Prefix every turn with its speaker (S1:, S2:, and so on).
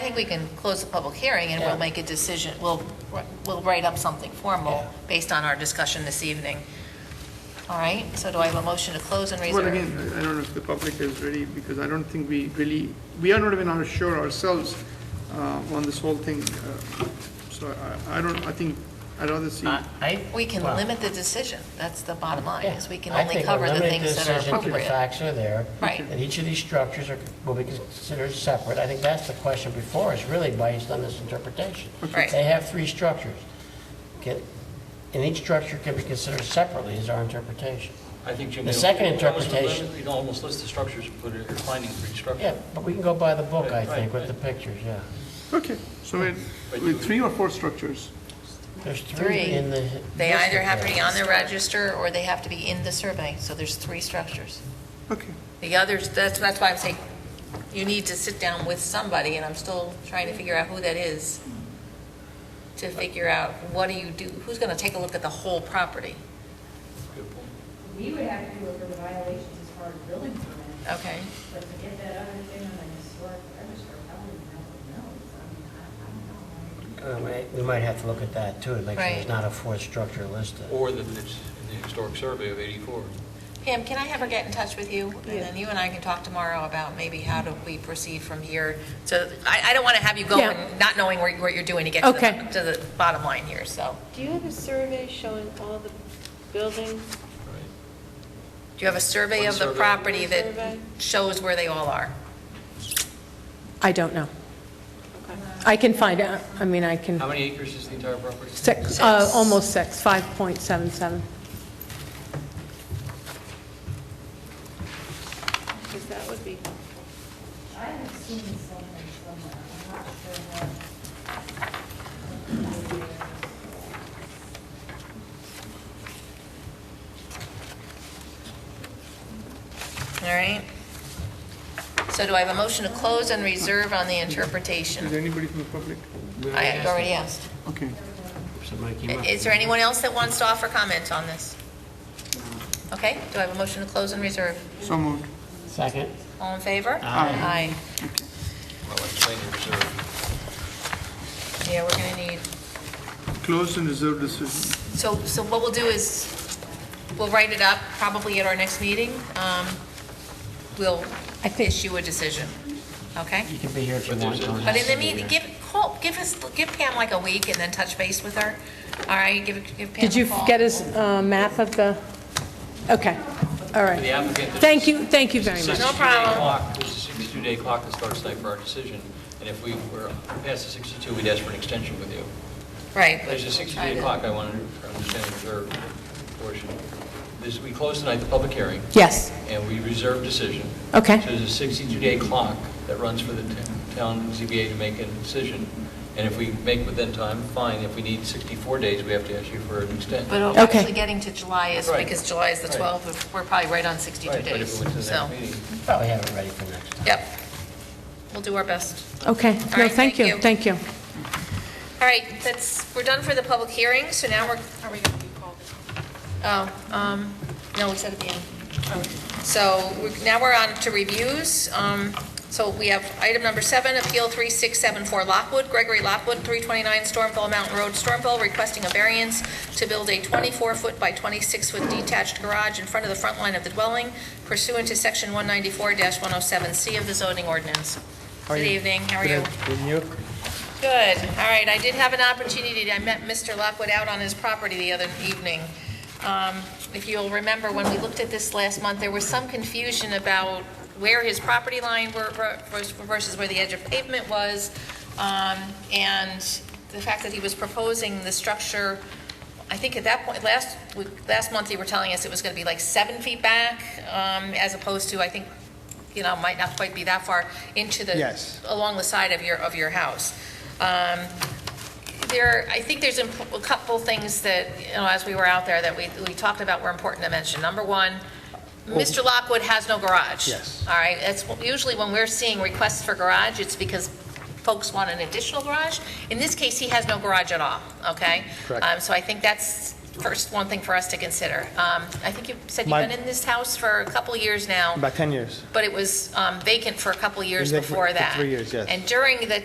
S1: think we can close the public hearing and
S2: Yeah.
S1: we'll make a decision, we'll, we'll write up something formal
S2: Yeah.
S1: based on our discussion this evening. All right, so do I have a motion to close and
S3: Well,
S1: reserve?
S3: again, I I don't know if the public is ready, because I don't think we really, we are not even our- sure ourselves uh, on this whole thing. uh, So I, I don't, I think, I'd rather see,
S2: I- I-
S1: We can
S2: well,
S1: limit the decision, that's the bottom line,
S2: yeah.
S1: is we can
S2: I
S1: only
S2: think
S1: cover
S2: we'll
S1: the
S2: limit
S1: things that are
S2: decision to The
S1: appropriate.
S2: facts are there.
S1: Right.
S2: That each of these structures are, will be considered separate. I think that's the question before us, really based on this interpretation.
S1: Okay.
S2: They have three structures. Can- And each structure can be considered separately is our interpretation.
S4: I think, Jim.
S2: The
S4: you
S2: second
S4: almost-
S2: interpretation-
S4: You can almost list the structures, and put a finding for each structure.
S2: Yeah, but we can go by the book, I
S4: Right,
S2: think, with
S4: right,
S2: the pictures, yeah.
S3: okay, so we're, we're three or four structures.
S2: There's three
S1: Three,
S2: in the.
S1: they
S2: listed
S1: either have to be
S2: there.
S1: on the register or they have to be in the survey, so there's three structures.
S3: Okay,
S1: The others, that's, that's why I'm saying, you need to sit down with somebody, and I'm still trying to figure out who that is, to figure out what do you do, who's gonna take a look at the whole property,
S4: Good point.
S5: We would have to look at the violations as far as building permits,
S1: okay?
S5: but to get that other thing on the historic register, I wouldn't know, no, I mean, I, I don't know.
S2: Uh, we- We might have to look at that too, to make sure
S1: Right.
S2: there's not a fourth structure listed.
S4: Or that it's in the historic survey of 84.
S1: Pam, can I have her get in touch with you? And then you and I can talk tomorrow about maybe how do we proceed from here. So I, I don't wanna have you going,
S6: Yeah.
S1: not knowing where- what you're doing to get to the,
S6: Okay.
S1: to the bottom line here, so.
S7: Do you have a survey showing all the buildings?
S4: right?
S1: Do you have a survey
S4: One
S1: of the
S4: survey.
S1: property that
S7: Survey.
S1: shows where they all are?
S6: I don't know. I can find out, I mean, I can,
S4: How many acres is the entire property?
S6: six, uh, almost six, 5.77.
S7: Because that would be,
S5: I have seen something somewhere, I'm not sure what.
S1: All right. So do I have a motion to close and reserve on the
S3: is
S1: interpretation?
S3: there anybody from the public?
S1: I already asked.
S3: Okay,
S2: Somebody came up.
S1: Is there anyone else that wants to offer comments on this? Okay, do I have a motion to close and reserve?
S3: so moved.
S2: Second?
S1: All in favor?
S3: Aye.
S4: Well, I'm saying it's, uh,
S1: Aye. Yeah, we're going to need,
S3: Closed and reserved decision.
S1: so, so what we'll do is, we'll write it up probably at our next meeting. Um, We'll issue a decision, okay?
S2: You can be here if you
S4: But
S2: want.
S4: there's a-
S2: don't have
S1: But in
S2: to
S1: the
S2: be
S1: meeting,
S2: here.
S1: give, call, give us, give Pam like a week and then touch base with her, all right? Give give Pam
S6: Did you
S1: a call.
S6: get his uh, map of the, okay, all right.
S4: The applicant.
S6: Thank you, thank you very
S4: There's
S6: much.
S4: a
S1: No
S4: 62 day
S1: problem.
S4: clock- There's a 62-day clock that starts tonight for our decision, and if we were past the 62, we'd ask for an extension with you.
S1: Right.
S4: There's a 62-day clock I want to understand the reserve portion. This, we closed tonight the public hearing,
S6: Yes,
S4: and we reserve decision.
S6: Okay.
S4: So there's a 62-day clock that runs for the t- town ZBA to make a decision, and if we make within time, fine. If we need 64 days, we have to ask you for an extension.
S1: But
S6: Okay.
S1: actually getting to July is,
S4: Right.
S1: because July is the
S4: Right.
S1: 12th, we're- we're probably right on 62
S4: Right, but if
S1: days,
S4: it went to the
S1: so,
S4: next meeting.
S2: Probably have it ready for next time.
S1: yep. We'll do our best.
S6: okay.
S1: All
S6: No,
S1: right,
S6: thank
S1: thank
S6: you,
S1: you.
S6: thank you.
S1: All right, that's, we're done for the public hearing, so now we're,
S7: are we going to be called?
S1: oh, um, no, we said at the end. So we- now we're on to reviews. Um, So we have item number seven, Appeal 3674 Lockwood, Gregory Lockwood, 329 Stormville Mountain Road, Stormville, requesting a variance to build a 24-foot by 26-foot detached garage in front of the front line of the dwelling pursuant to Section 194-107C of the zoning ordinance. Good evening, how are you? Good, all right, I did have an opportunity, I met Mr. Lockwood out on his property the other evening. Um, If you'll remember, when we looked at this last month, there was some confusion about where his property line were- were- versus where the edge of pavement was, um, and the fact that he was proposing the structure, I think at that point, last, week- last month, you were telling us it was going to be like seven feet back, um, as opposed to, I think, you know, might not quite be that far into the.
S8: Yes.
S1: Along the side of your, of your house. Um, there, I think there's imp- a couple things that, you know, as we were out there, that we, we talked about were important to mention. Number one, Mr. Lockwood has no garage.
S8: Yes.
S1: All right, that's usually when we're seeing requests for garage, it's because folks want an additional garage. In this case, he has no garage at all, okay?
S8: Correct.
S1: Um, So I think that's first, one thing for us to consider. Um, I think you said you've
S8: My-
S1: been in this house for a couple years now,
S8: About 10 years.
S1: but it was um, vacant for a couple years
S8: Vacant for-
S1: before
S8: for
S1: that.
S8: three years, yes.
S1: And during the